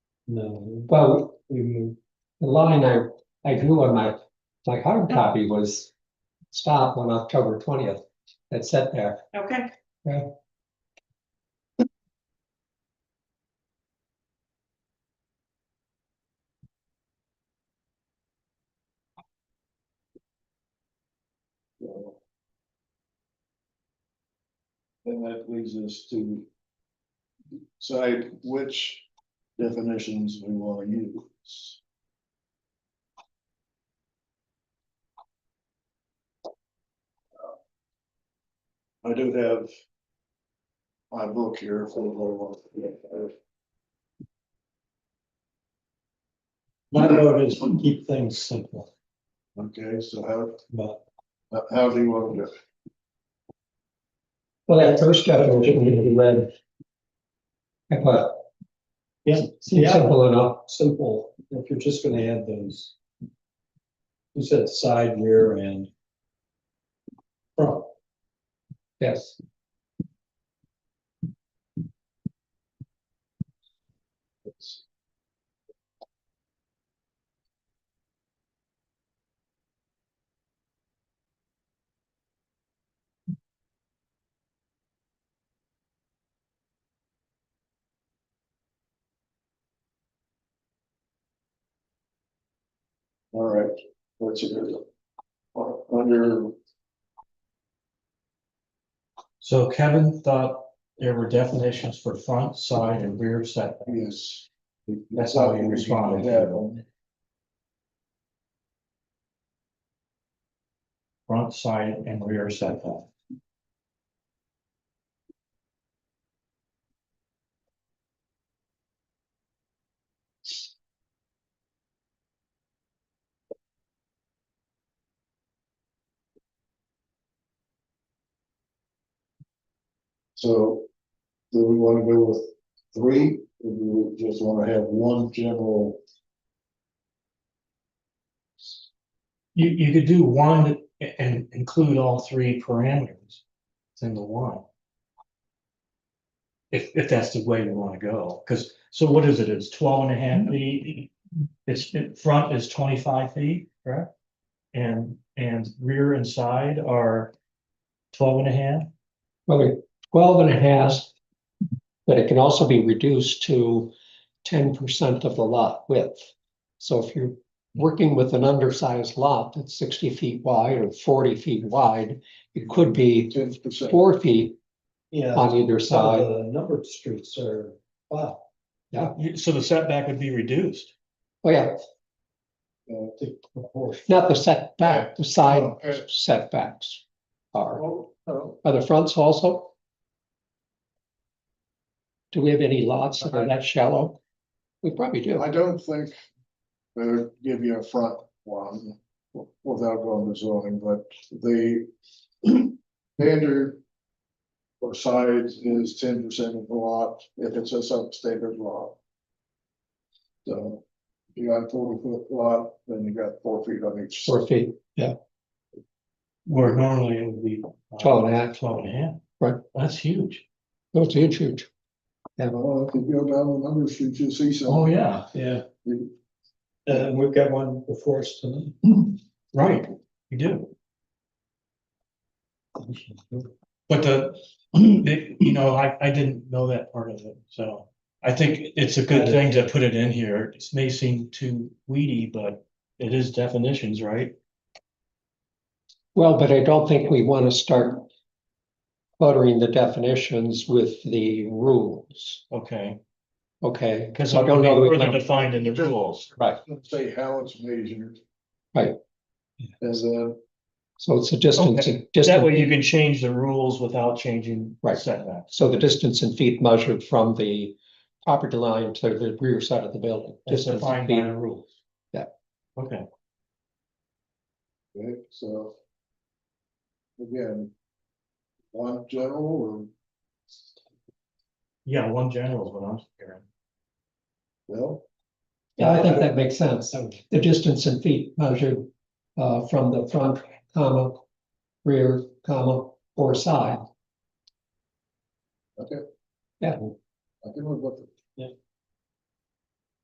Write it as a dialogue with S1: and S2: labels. S1: No, well, um, the line I, I drew on my, my hard copy was stop on October twentieth. That's set there.
S2: Okay.
S1: Yeah.
S3: And that leads us to decide which definitions we want to use. I do have my book here for the whole one.
S4: My note is to keep things simple,
S3: Okay, so how,
S4: but
S3: how do you want to, do it?
S1: Well, that first definition you be read. I thought,
S4: yeah,
S1: seems
S4: yeah,
S1: simple enough.
S4: simple, if you're just gonna add those. You said side, rear, and front,
S1: Yes,
S3: all right, what's your, under
S4: so Kevin thought there were definitions for front, side, and rear setback.
S3: Yes.
S4: That's how you respond.
S3: Yeah.
S4: Front, side, and rear setback.
S3: So do we want to go with three? Or do we just want to have one general?
S4: You, you could do one and include all three parameters in the one. If, if that's the way we want to go, because, so what is it? It's 12 and a half
S1: Mm-hmm.
S4: feet. It's, it- front is twenty-five feet, correct? And, and rear and side are 12 and a half.
S1: probably twelve and a half. But it can also be reduced to ten percent of the lot width. So if you're working with an undersized lot that's sixty feet wide or forty feet wide, it could be
S3: Ten percent.
S1: four feet
S5: Yeah,
S1: on either
S5: some
S1: side.
S5: of the numbered streets are, wow,
S4: You- So the setback would be reduced.
S1: Oh, yeah,
S5: the proportion.
S1: not the setback, the side
S3: Okay.
S1: setbacks are,
S3: Oh, oh,
S1: are the fronts also? Do we have any lots that are that shallow? We probably do.
S3: Uh-huh. I don't think they would give you a front one without going to zoning, but the standard for sides is ten percent of the lot if it's a substandard lot. So you got a forty foot lot, then you got four feet on each. side.
S1: Four feet,
S4: Where normally it would be. uh,
S1: twelve and a half,
S4: 12 and a half.
S1: Right.
S4: That's huge.
S1: those are huge, huge.
S3: Well, if you go down the numbers, you should see some.
S4: Oh, yeah,
S5: Yeah,
S3: You-
S5: and uh, we've got one before us tonight.
S4: Mm-hmm. right, you do. But the, the- you know, I, I didn't know that part of it, so I think it's a good thing to put it in here. It may seem too weedy, but it is definitions, right?
S1: Well, but I don't think we want to start cluttering the definitions with the rules,
S4: Okay,
S1: okay?
S4: because
S1: I
S4: I'm
S1: don't know that we
S4: further
S1: can-
S4: defined in the rules.
S1: Right,
S3: Let's say how it's measured.
S1: Right.
S3: As uh, a,
S1: so it's a distance,
S4: Okay. That way
S1: distance,
S4: you can change the rules without changing
S1: Right.
S4: setbacks.
S1: so the distance in feet measured from the property line to the rear side of the building.
S4: It's
S1: Distance in
S4: defined by
S1: feet.
S4: the rules.
S1: Yeah.
S4: Okay,
S3: right, so. Again. One general
S4: yeah, one general is what I'm hearing.
S3: or, well,
S1: Yeah, I think that makes sense. The distance in feet measured uh from the front, comma, rear, comma, or side.
S3: okay.
S1: Yeah.
S3: I can look up.
S4: Yeah.